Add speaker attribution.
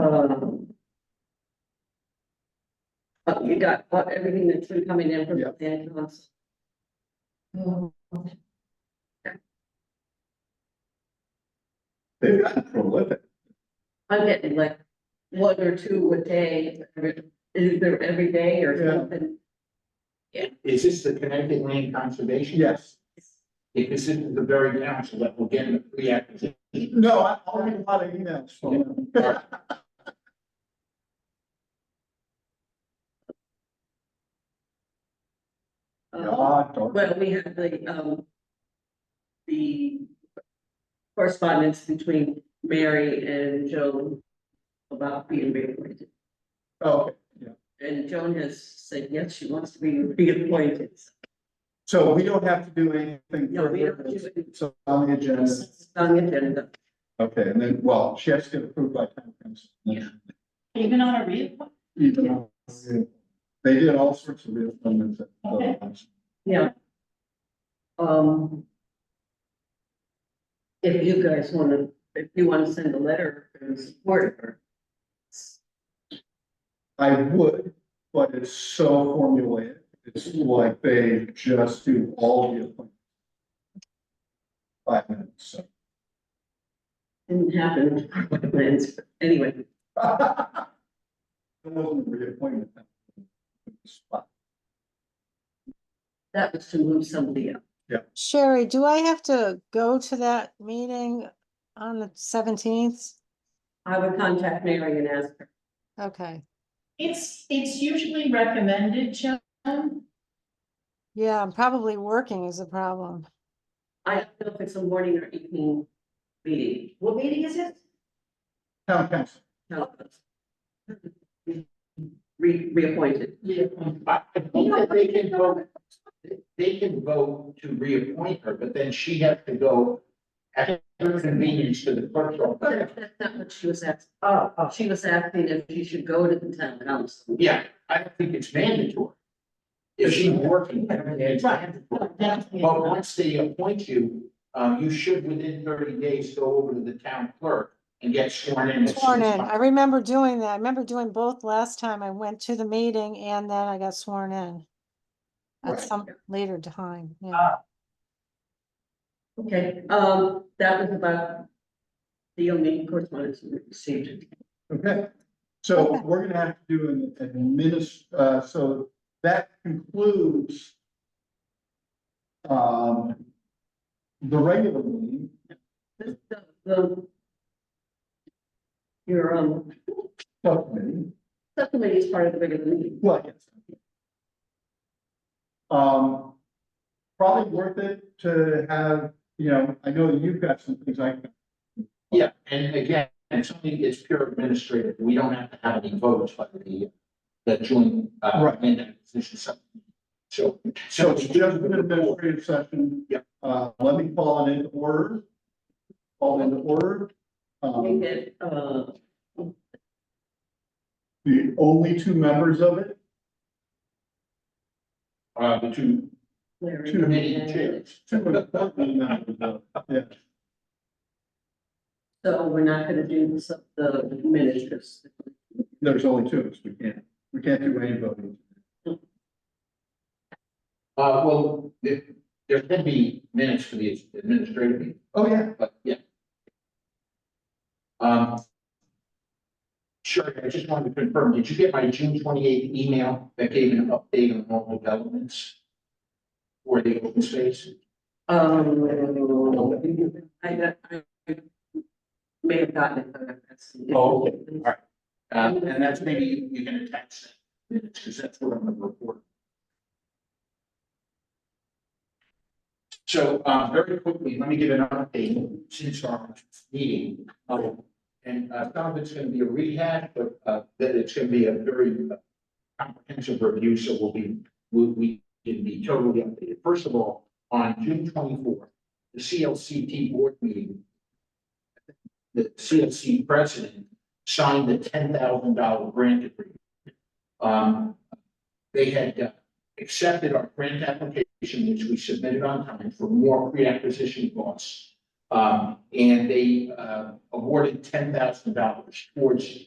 Speaker 1: Um, uh, got all- everything that's been coming in from
Speaker 2: Yeah.
Speaker 1: the Ed Council.
Speaker 2: They've gotten prolific.
Speaker 1: I'm getting like one or two a day, every- either every day or
Speaker 2: Yeah.
Speaker 1: something.
Speaker 3: Is this the Connecticut Land Conservation?
Speaker 2: Yes.
Speaker 3: Because this is the very grounds that we're getting the pre-acquisition.
Speaker 2: No, I, I'll get a lot of emails from them.
Speaker 1: Um,
Speaker 2: God, darn.
Speaker 1: Well, we have the, um, the correspondence between Mary and Joan about being reappointed.
Speaker 2: Okay,
Speaker 1: And Joan has said, yes, she wants to be reappointed.
Speaker 2: so we don't have to do anything
Speaker 1: No, we don't
Speaker 2: further.
Speaker 1: do it.
Speaker 2: It's on the agenda.
Speaker 1: It's on the agenda.
Speaker 2: Okay, and then, well, she has to get approved by town council.
Speaker 4: Even on a reappointment?
Speaker 2: Even- They did all sorts of real things.
Speaker 4: Okay.
Speaker 1: Yeah. Um. If you guys wanna, if you wanna send a letter in support of her.
Speaker 2: I would, but it's so formulaic. It's like they just do all the appointments. Five minutes, so.
Speaker 1: Didn't happen, plans, but anyway,
Speaker 2: That wasn't a reappointment. that was a spot.
Speaker 1: that was to move somebody up.
Speaker 5: Sherry, do I have to go to that meeting on the seventeenth?
Speaker 1: I would contact Mary and ask her.
Speaker 5: Okay,
Speaker 4: It's, it's usually recommended, Joan.
Speaker 5: yeah, I'm probably working is a problem.
Speaker 1: I don't know if it's a morning or evening meeting. What meeting is it?
Speaker 2: Town council.
Speaker 1: No. Re- reappointed.
Speaker 3: Yeah. I I think that they can vote, they can vote to reappoint her, but then she has to go at her convenience to the clerk's office.
Speaker 1: But that's not what she was asking. She was asking if she should go to the town council.
Speaker 3: Yeah, I don't think it's mandatory. If she's working, it's mandatory. But once they appoint you, um, you should within thirty days go over to the town clerk and get sworn in. as soon
Speaker 5: Sworn
Speaker 3: as
Speaker 5: in. I
Speaker 3: possible.
Speaker 5: remember doing that. I remember doing both last time. I went to the meeting and then I got sworn in. At
Speaker 3: Right.
Speaker 5: some later time, yeah.
Speaker 3: Ah.
Speaker 1: Okay, um, that was about the only correspondence we received.
Speaker 2: Okay, so
Speaker 5: Okay.
Speaker 2: we're gonna have to do an adminis, uh, so that concludes. Um. The regular meeting,
Speaker 1: This, the, the. Your, um,
Speaker 2: subcommittee,
Speaker 1: subcommittee is part of the regular meeting.
Speaker 2: well, yes. Um. Probably worth it to have, you know, I know that you've got some things I,
Speaker 3: Yeah, and again, it's only, it's pure administrative, we don't have to have any votes by the, the joint, uh,
Speaker 2: Right.
Speaker 3: land acquisition subcommittee. So.
Speaker 2: so it's just an administrative session.
Speaker 3: Yep.
Speaker 2: Uh, let me call it into order. Call it into order.
Speaker 1: Make
Speaker 2: Um,
Speaker 1: it, uh,
Speaker 2: the only two members of it
Speaker 3: Uh, the two,
Speaker 1: Larry.
Speaker 2: Two
Speaker 3: meeting chairs.
Speaker 2: Two important members of- yeah.
Speaker 1: So we're not gonna do the, sub- the minutes.
Speaker 2: There's only two, of us. we can't, we can't do any voting.
Speaker 3: uh, well, there, there can be minutes for the administrative meeting,
Speaker 2: Oh, yeah.
Speaker 3: but yeah. Um. Sure, I just wanted to confirm, did you get my June twenty eighth email that gave an update on all developments? Or the open space?
Speaker 1: Um, I got, I may have gotten it. but that's-
Speaker 3: Oh, okay. Um, and that's maybe you, you can attach that, because that's what I'm gonna report. So, um, very quickly, let me give an update since our meeting. Um, and, uh, some of it's gonna be a rehash, but, uh, that it's gonna be a very uh, comprehensive review, so we'll be, we, we can be totally updated. First of all, on June twenty-fourth, the CLCT board meeting, the CLC president signed the ten thousand dollar grant agreement. Um, they had uh, accepted our grant application, which we submitted on time for more pre-acquisition costs. Um, and they, uh, awarded ten thousand dollars towards